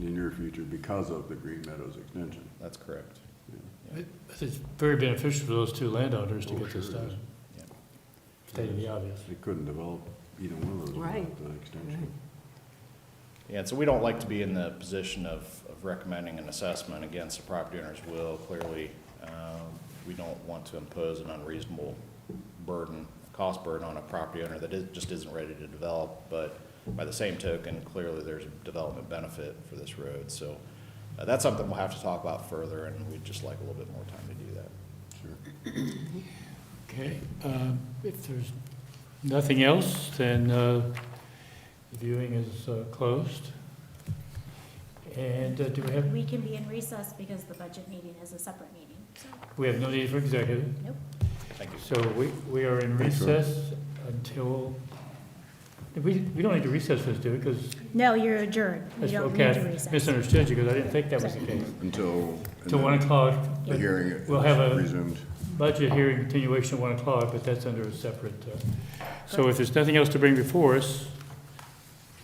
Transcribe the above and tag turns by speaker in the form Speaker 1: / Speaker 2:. Speaker 1: near future because of the Green Meadows extension.
Speaker 2: That's correct.
Speaker 3: It- It's very beneficial for those two landowners to
Speaker 1: Oh,
Speaker 3: get this
Speaker 1: sure is.
Speaker 3: done, stating the obvious.
Speaker 1: They couldn't develop either one of those
Speaker 4: Right.
Speaker 1: without the extension.
Speaker 2: Yeah, and so we don't like to be in the position of, of recommending an assessment against the property owner's will. Clearly, um, we don't want to impose an unreasonable burden, cost burden on a property owner that is, just isn't ready to develop. But by the same token, clearly there's a development benefit for this road. So uh, that's something we'll have to talk about further, and we'd just like a little bit more time to do that.
Speaker 3: Okay, um, if there's nothing else, then uh, the viewing is uh, closed. And uh, do we have,
Speaker 5: We can be in recess because the budget meeting is a separate meeting, so.
Speaker 3: we have no need for executive,
Speaker 2: Thank you.
Speaker 3: so we, we are in
Speaker 1: Thanks, Rob.
Speaker 3: recess until, we, we don't need to recess this, do we? Because,
Speaker 5: No, you're adjourned. You don't
Speaker 3: okay,
Speaker 5: need to
Speaker 3: I
Speaker 5: recess.
Speaker 3: misunderstood you, because I didn't think that was the case.
Speaker 1: Until.
Speaker 3: Till one o'clock.
Speaker 1: The hearing is
Speaker 3: We'll have a-
Speaker 1: resumed.
Speaker 3: budget hearing continuation at one o'clock, but that's under a separate, uh, so if there's nothing else to bring before us,